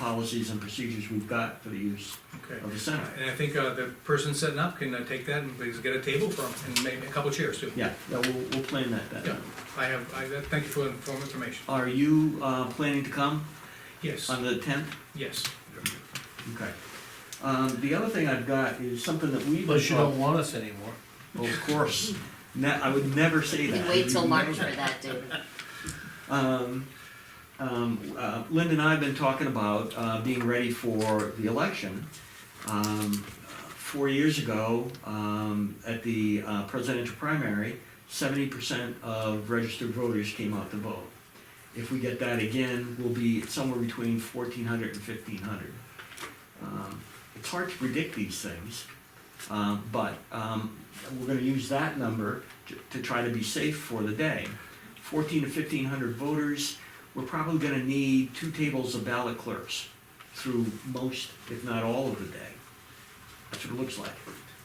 policies and procedures we've got for the use Okay. of the center. And I think uh, the person setting up can uh, take that and please get a table for him and maybe a couple chairs too. Yeah, yeah, we'll, we'll plan that then. Yeah. I have, I, that- thank you for the inform- information. Are you, uh, planning to come Yes, on the tenth? yes. Okay. Um, the other thing I've got is something that we. Unless you don't want us anymore. Well, Of course, ne- I would never say You that. can wait till You know March for that. that, David. Um, um, uh, Linda and I have been talking about, uh, being ready for the election. Um, four years ago, um, at the uh, presidential primary, seventy percent of registered voters came out to vote. If we get that again, we'll be somewhere between fourteen hundred and fifteen hundred. Um, it's hard to predict these things, um, but, um, we're gonna use that number to, to try to be safe for the day. Fourteen to fifteen hundred voters, we're probably gonna need two tables of ballot clerks through most, if not all of the day. That's what it looks like.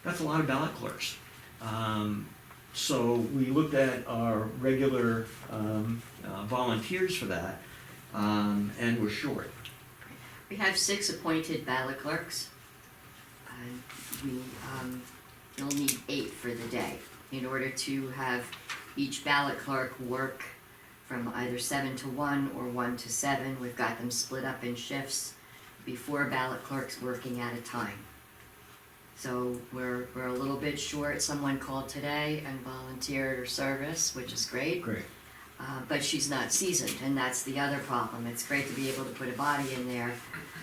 That's a lot of ballot clerks. Um, so we looked at our regular, um, uh, volunteers for that, um, and we're short. We have six appointed ballot clerks. And We, um, you'll need eight for the day in order to have each ballot clerk work from either seven to one or one to seven. We've got them split up in shifts, before ballot clerks working at a time. So we're, we're a little bit short. Someone called today and volunteered her service, which is great. Great. Uh, but she's not seasoned, and that's the other problem. It's great to be able to put a body in there,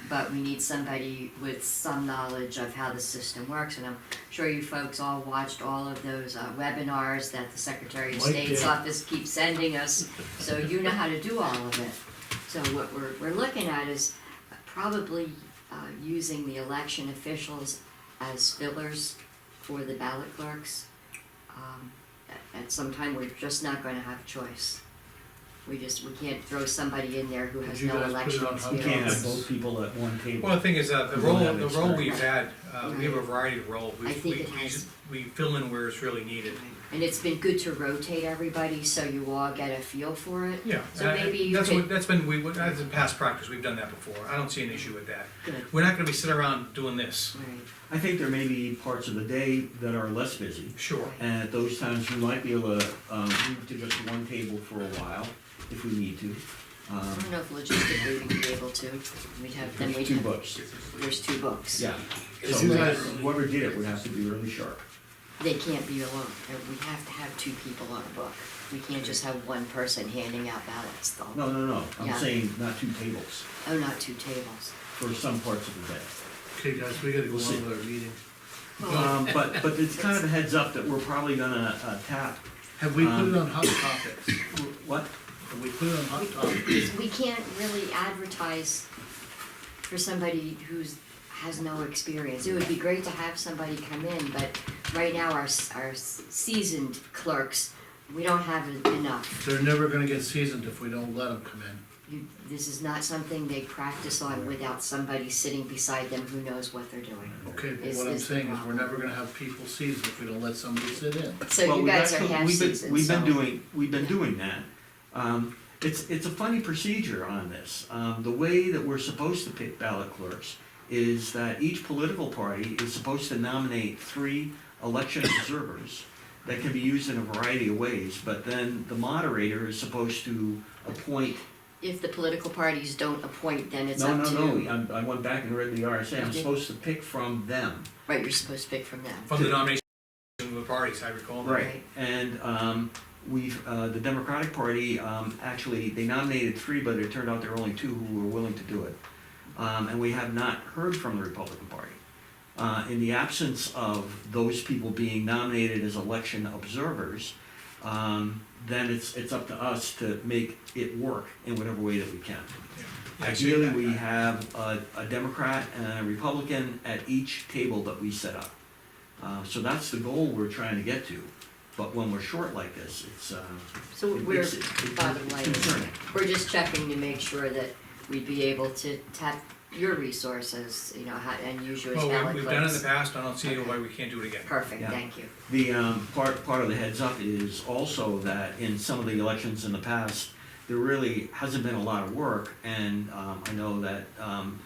but we need somebody with some knowledge of how the system works. And I'm sure you folks all watched all of those uh, webinars that the Secretary of Mike State's did. office keeps sending us, so you know how to do all of it. So what we're, we're looking at is probably uh, using the election officials as fillers for the ballot clerks. Um, at- At some time, we're just not gonna have a choice. We just, we can't throw somebody in there who Did has you no guys put it election on We Yeah. can't experience. have both people at one table. Well, the thing is, uh, the We role, don't have the role experience. we've had, uh, we have a variety of role. We- I think we- it we- has- We fill in where it's really needed. And it's been good to rotate everybody, so you all get a feel for it. Yeah. So that- maybe you That's could- what, that's been, we, that's in past practice, we've done that before. I don't see an issue with that. Good, We're not gonna be sitting around doing this, right. I think there may be parts of the day that are less busy. sure. And at those times, we might be able to, um, move to just one table for a while, if we need to. I Um, don't know if logistically we'd be able to. We'd have, then we'd there's two have, books, there's two books. yeah. If So you guys- whoever did it would have to be really sharp. They can't be alone. Uh, We have to have two people on a book. We can't just have one person handing out ballots though. No, no, no, I'm Yeah. saying not two tables Oh, not two tables. for some parts of the day. Okay, guys, we gotta go We'll on see. with our meeting. Um, but, but it's kind of a heads up that we're probably gonna uh, tap, Have we put Um, it on Hot Topics? what? Have we put it on Hot Topics? Because we can't really advertise for somebody who's, has no experience. It would be great to have somebody come in, but right now our, s- our s- seasoned clerks, we don't have en- enough. They're never gonna get seasoned if we don't let them come in. You, this is not something they practice on without somebody sitting beside them who knows what they're doing. Okay, but Is- what I'm is the saying is we're problem. never gonna have people seasoned if we don't let somebody sit in. So Well, you we've guys are actually- half we've been- seasoned, We've been so- doing, we've been Yeah. doing that. Um, it's, it's a funny procedure on this. Um, the way that we're supposed to pick ballot clerks is that each political party is supposed to nominate three election observers that can be used in a variety of ways, but then the moderator is supposed to appoint, If the political parties don't appoint, then it's no, up no, to. no, I'm- I went back and read the RSA, I'm Okay. supposed to pick from them. Right, you're supposed to pick from them. From the nomination of the parties, I recall. that. Right, and um, we've, uh, the Democratic Party, um, actually, they nominated three, but it turned out there were only two who were willing to do it. Um, And we have not heard from the Republican Party. Uh, In the absence of those people being nominated as election observers, um, then it's, it's up to us to make it work in whatever way that we can. Ideally, we have a, a Democrat and a Republican at each table that we set up. Uh, so that's the goal we're trying to get to, but when we're short like this, it's, uh. So it- we're, it's- it- it's bottom line is, concerning. we're just checking to make sure that we'd be able to tap your resources, you know, how- and use you as Well, we- ballot we've done it in the clerks. past, I don't see Okay. why we can't do it again. Perfect, Yeah. thank you. The, um, part, part of the heads up is also that in some of the elections in the past, there really hasn't been a lot of work, and, um, I know that, um,